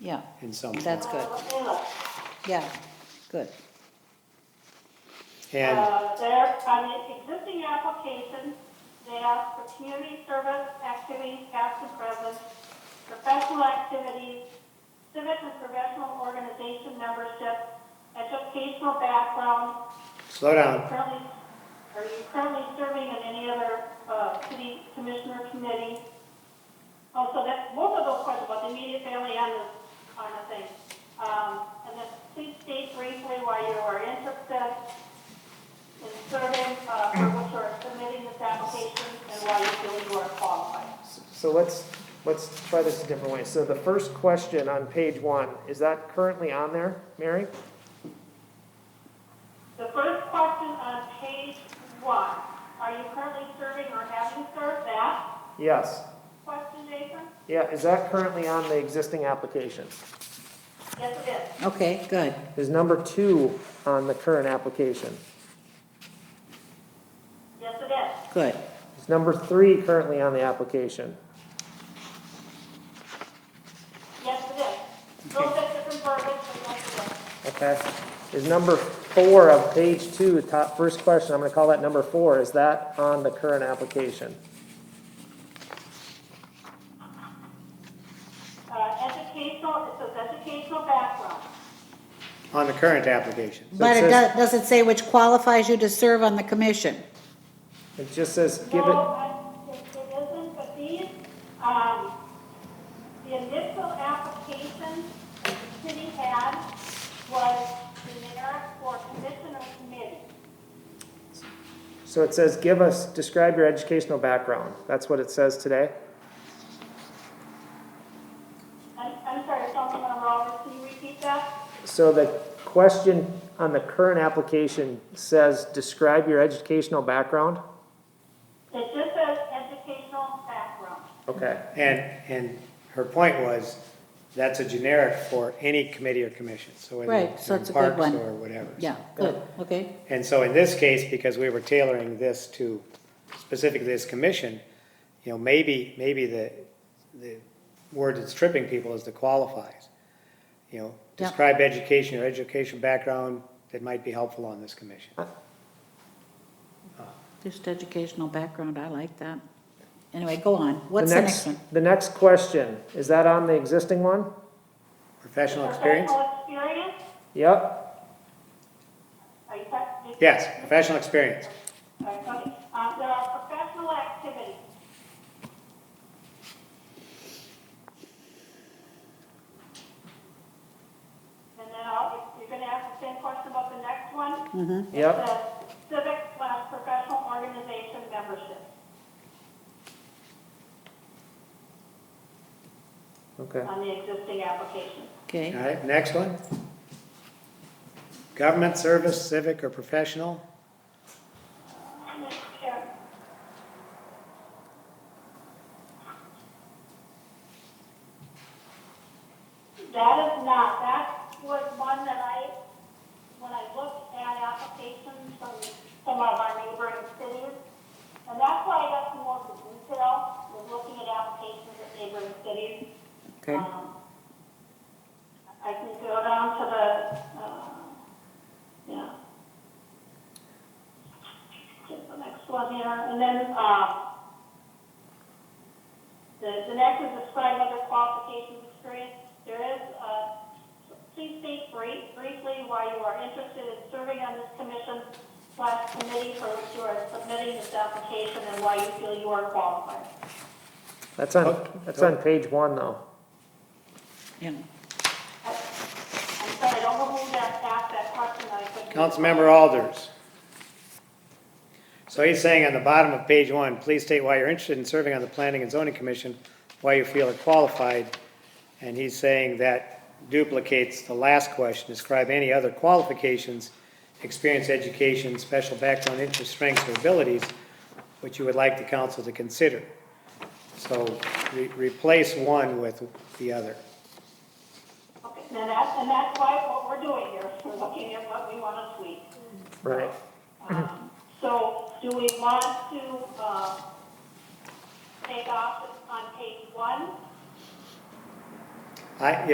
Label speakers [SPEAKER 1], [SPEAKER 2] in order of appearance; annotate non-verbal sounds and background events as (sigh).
[SPEAKER 1] yeah,
[SPEAKER 2] in some form.
[SPEAKER 1] that's good. Yeah, good.
[SPEAKER 2] And,
[SPEAKER 3] Uh, There, on the existing application, they ask for community service, activities, past and present, professional activities, civic and professional organization membership, educational background,
[SPEAKER 2] slow down,
[SPEAKER 3] currently, are you currently serving in any other uh, city commissioner committee? Oh, so that, most of those questions about the immediate family and this kind of thing. Um, And then please state briefly why you are interested in serving, uh, for which you are submitting this application and why you feel you are qualified.
[SPEAKER 4] So let's, let's try this a different way. So the first question on page one, is that currently on there, Mary?
[SPEAKER 3] The first question on page one, are you currently serving or having served that?
[SPEAKER 4] Yes.
[SPEAKER 3] Question, Jason?
[SPEAKER 4] Yeah, is that currently on the existing application?
[SPEAKER 3] Yes, it is.
[SPEAKER 1] Okay, good.
[SPEAKER 4] Is number two on the current application?
[SPEAKER 3] Yes, it is.
[SPEAKER 1] Good.
[SPEAKER 4] Is number three currently on the application?
[SPEAKER 3] Yes, it is. Those are different verbiage, but yes, it is.
[SPEAKER 4] Okay. Is number four of page two, top, first question, I'm gonna call that number four, is that on the current application?
[SPEAKER 3] Uh, educational, it says educational background.
[SPEAKER 2] on the current application.
[SPEAKER 1] But it
[SPEAKER 4] says-
[SPEAKER 1] does, does it say which qualifies you to serve on the commission?
[SPEAKER 4] It just says, give
[SPEAKER 3] No,
[SPEAKER 4] it,
[SPEAKER 3] I- it, it isn't, but these, um, the initial application that the city had was generic for commission or committee.
[SPEAKER 4] so it says, give us, describe your educational background. That's what it says today?
[SPEAKER 3] I'm, I'm sorry, something went wrong, can you repeat that?
[SPEAKER 4] So the question on the current application says, describe your educational background?
[SPEAKER 3] It just says educational background.
[SPEAKER 4] Okay,
[SPEAKER 2] And, and her point was, that's a generic for any committee or commission, so whether
[SPEAKER 1] Right,
[SPEAKER 2] it's
[SPEAKER 1] so
[SPEAKER 2] in
[SPEAKER 1] it's a good
[SPEAKER 2] parks
[SPEAKER 1] one.
[SPEAKER 2] or whatever.
[SPEAKER 1] Yeah, good, okay.
[SPEAKER 2] And so in this case, because we were tailoring this to specifically this commission, you know, maybe, maybe the, the word that's tripping people is the qualifies. You know,
[SPEAKER 1] Yeah.
[SPEAKER 2] describe education or education background that might be helpful on this commission.
[SPEAKER 1] Just educational background, I like that. Anyway, go on.
[SPEAKER 4] the
[SPEAKER 1] What's the next
[SPEAKER 4] next,
[SPEAKER 1] one?
[SPEAKER 4] the next question, is that on the existing one?
[SPEAKER 2] Professional experience?
[SPEAKER 3] Professional experience,
[SPEAKER 4] Yep,
[SPEAKER 3] are you talking?
[SPEAKER 2] Yes, professional experience.
[SPEAKER 3] All right, okay. Um, there are professional activities. And then I'll, if you're gonna ask the same question about the next one. Mm-hmm.
[SPEAKER 4] Yep.
[SPEAKER 3] Civic slash professional organization membership.
[SPEAKER 4] okay.
[SPEAKER 3] on the existing application.
[SPEAKER 2] All
[SPEAKER 1] Okay,
[SPEAKER 2] right, next one. Government service, civic or professional?
[SPEAKER 3] Mr. Chair. That is not, that was one that I, when I looked at applications from some of our neighboring cities, and that's why I got some more to detail, was looking at applications at neighboring cities.
[SPEAKER 1] okay.
[SPEAKER 3] Um, I can go down to the, uh, yeah. Get the next one here, and then, uh, the, the next is describe other qualifications experience. There is, uh, please state brief, briefly why you are interested in serving on this commission slash committee for which you are submitting this application and why you feel you are qualified.
[SPEAKER 4] That's on, that's on page one though.
[SPEAKER 1] Yeah.
[SPEAKER 3] I'm sorry, I don't know who that asked that question, I couldn't.
[SPEAKER 2] Councilmember Alders. So he's saying on the bottom of page one, please state why you're interested in serving on the Planning and Zoning Commission, why you feel are qualified. And he's saying that duplicates the last question, describe any other qualifications, experience, education, special background, interest, strengths, or abilities which you would like the council to consider. So re- replace one with the other.
[SPEAKER 3] Okay, and that, and that's why what we're doing here, (laughs) is we're looking at what we want to tweak.
[SPEAKER 4] Right.
[SPEAKER 3] Um, So do we want to, uh, take off on page one?
[SPEAKER 2] I, if